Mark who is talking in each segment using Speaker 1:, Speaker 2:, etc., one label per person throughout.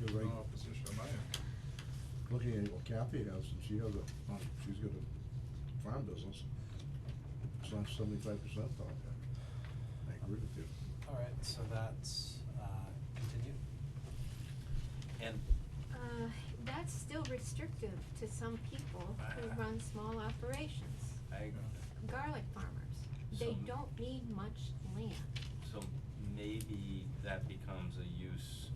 Speaker 1: You're
Speaker 2: No
Speaker 1: right.
Speaker 2: opposition on my end.
Speaker 1: Looking at what Kathy has, and she has a, well, she's got a farm business, it's not seventy-five percent off. I agree with you.
Speaker 3: Alright, so that's, uh, continued. And
Speaker 4: Uh, that's still restrictive to some people
Speaker 3: Ah.
Speaker 4: who run small operations,
Speaker 3: I,
Speaker 4: garlic farmers. They
Speaker 5: So-
Speaker 4: don't need much land.
Speaker 5: So maybe that becomes a use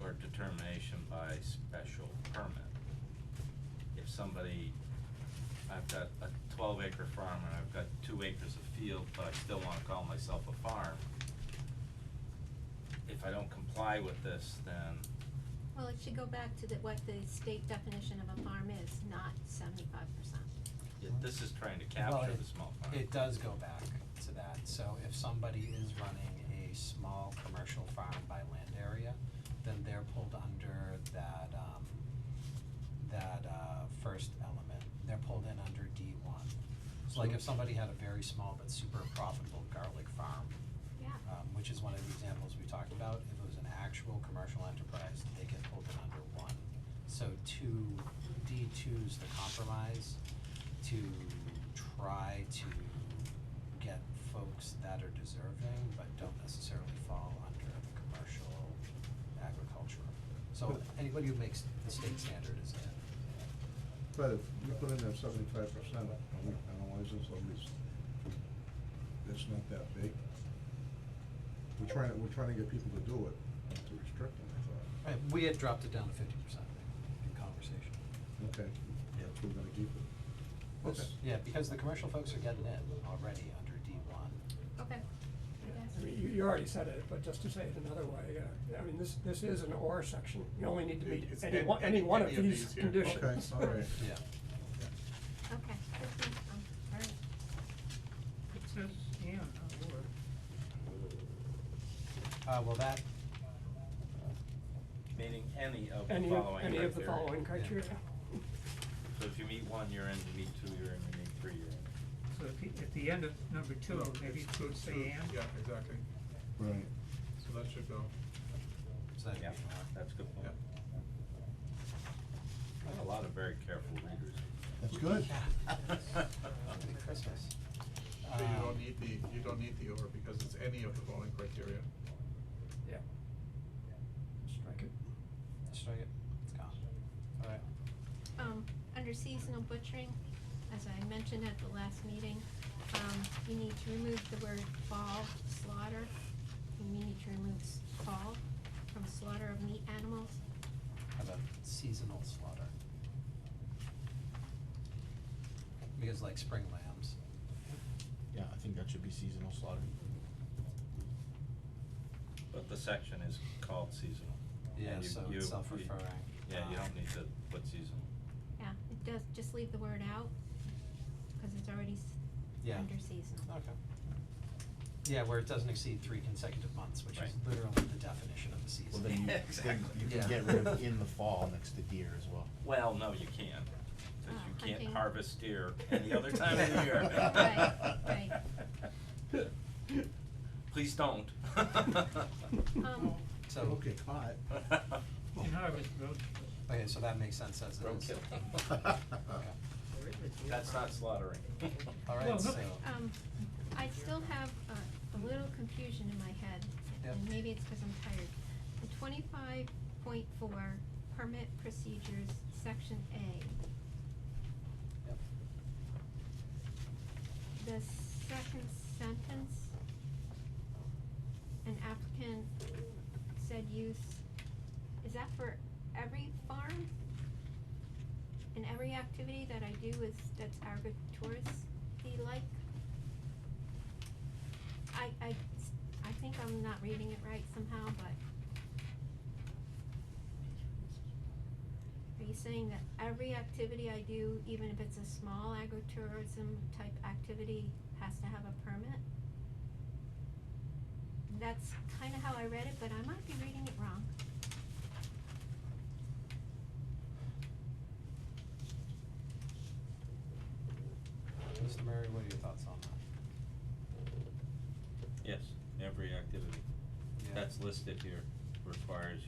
Speaker 5: or determination by special permit. If somebody, I've got a twelve acre farm and I've got two acres of field, but I still wanna call myself a farm. If I don't comply with this, then,
Speaker 4: Well, it should go back to the, what the state definition of a farm is, not seventy-five percent.
Speaker 5: yeah, this is trying to
Speaker 3: Well,
Speaker 5: capture
Speaker 3: it-
Speaker 5: the small farm.
Speaker 3: it does go back to that, so if somebody is running a small commercial farm by land area, then they're pulled under that, um, that, uh, first element, they're pulled in under D one. So like if somebody had a very small but super profitable garlic farm,
Speaker 4: Yeah,
Speaker 3: um, which is one of the examples we talked about, if it was an actual commercial enterprise, they get pulled in under one. So two, D two's the compromise to try to get folks that are deserving but don't necessarily fall under the commercial agriculture. So anybody who makes the state standard is in.
Speaker 1: But if you put in that seventy-five percent, and we analyze this, at least, it's not that big. We're trying, to- we're trying to get people to do it, not to restrict them, I thought.
Speaker 3: Right, we had dropped it down to fifty percent in conversation.
Speaker 1: Okay, that's where we're gonna keep it. Okay.
Speaker 3: Yeah, because the commercial folks are getting in already under D one.
Speaker 4: okay.
Speaker 6: I mean, you, you already said it, but just to say it another way, uh, I mean, this, this is an or section, you only need to meet
Speaker 2: It's
Speaker 6: any
Speaker 2: any-
Speaker 6: one, any one of
Speaker 2: any of
Speaker 6: these
Speaker 2: these here.
Speaker 6: conditions.
Speaker 1: Okay, all right.
Speaker 3: Yeah.
Speaker 4: Okay, good, um, all right.
Speaker 7: It says, yeah, not or.
Speaker 3: Uh, well, that,
Speaker 5: Meeting any of the
Speaker 6: Any of,
Speaker 5: following
Speaker 6: any of the
Speaker 5: criteria.
Speaker 6: following criteria.
Speaker 5: So if you meet one, you're in, you meet two, you're in, you meet three, you're in.
Speaker 7: So if you, at the end of number two,
Speaker 2: No,
Speaker 7: maybe
Speaker 2: it's
Speaker 7: it should say
Speaker 2: two-
Speaker 7: and.
Speaker 2: Yeah, exactly,
Speaker 1: Right.
Speaker 2: so that should go,
Speaker 3: so that'd be
Speaker 5: Yeah,
Speaker 3: more.
Speaker 5: that's a good point.
Speaker 2: yeah.
Speaker 5: I have a lot of very careful readers.
Speaker 1: That's good.
Speaker 3: Happy Christmas.
Speaker 2: So
Speaker 7: Uh,
Speaker 2: you
Speaker 3: Um,
Speaker 2: don't need the, you don't need the or because it's any of the following criteria.
Speaker 6: Yeah.
Speaker 3: Strike it. Strike it, it's gone. Alright,
Speaker 4: Um, under seasonal butchering, as I mentioned at the last meeting, um, you need to remove the word fall slaughter. And you need to remove s- fall from slaughter of meat animals.
Speaker 3: how about seasonal slaughter? Because like spring lambs,
Speaker 8: Yeah, I think that should be seasonal slaughter.
Speaker 5: But the section is called seasonal. and
Speaker 3: yeah,
Speaker 5: you-
Speaker 3: so
Speaker 5: you-
Speaker 3: it's
Speaker 5: you-
Speaker 3: self-referring.
Speaker 5: Yeah, you
Speaker 3: Um,
Speaker 5: don't need to put seasonal.
Speaker 4: Yeah, it does, just leave the word out, cause it's already s-
Speaker 3: Yeah.
Speaker 4: under seasonal.
Speaker 3: Okay. Yeah, where it doesn't exceed three consecutive months, which is
Speaker 5: Right.
Speaker 3: literally the definition of a season.
Speaker 8: Well, then you, then
Speaker 5: Exactly.
Speaker 8: you
Speaker 3: Yeah.
Speaker 8: can get rid of in the fall next to deer as well.
Speaker 5: Well, no, you can't, cause
Speaker 4: Ah,
Speaker 5: you can't
Speaker 4: hunting.
Speaker 5: harvest deer any other time of the year.
Speaker 4: Right,
Speaker 5: Please don't.
Speaker 4: Um,
Speaker 3: So.
Speaker 1: Okay, caught.
Speaker 7: In harvest road. trip.
Speaker 3: Okay, so that makes sense as it is.
Speaker 5: Roadkill.
Speaker 3: Okay,
Speaker 5: That's not slaughtering.
Speaker 3: alright,
Speaker 7: Well,
Speaker 3: so,
Speaker 7: look-
Speaker 4: um, I still have a, a little confusion in my head,
Speaker 3: Yep.
Speaker 4: and maybe it's cause I'm tired. In twenty-five point four, permit procedures, section A,
Speaker 3: yep,
Speaker 4: the second sentence, an applicant said use, is that for every farm? And every activity that I do is, that's agritouristy-like? I, I, s- I think I'm not reading it right somehow, but are you saying that every activity I do, even if it's a small agritourism type activity, has to have a permit? That's kinda how I read it, but I might be reading it wrong.
Speaker 3: Mr. Murray, what are your thoughts on that?
Speaker 5: Yes, every activity
Speaker 3: Yeah.
Speaker 5: that's listed here requires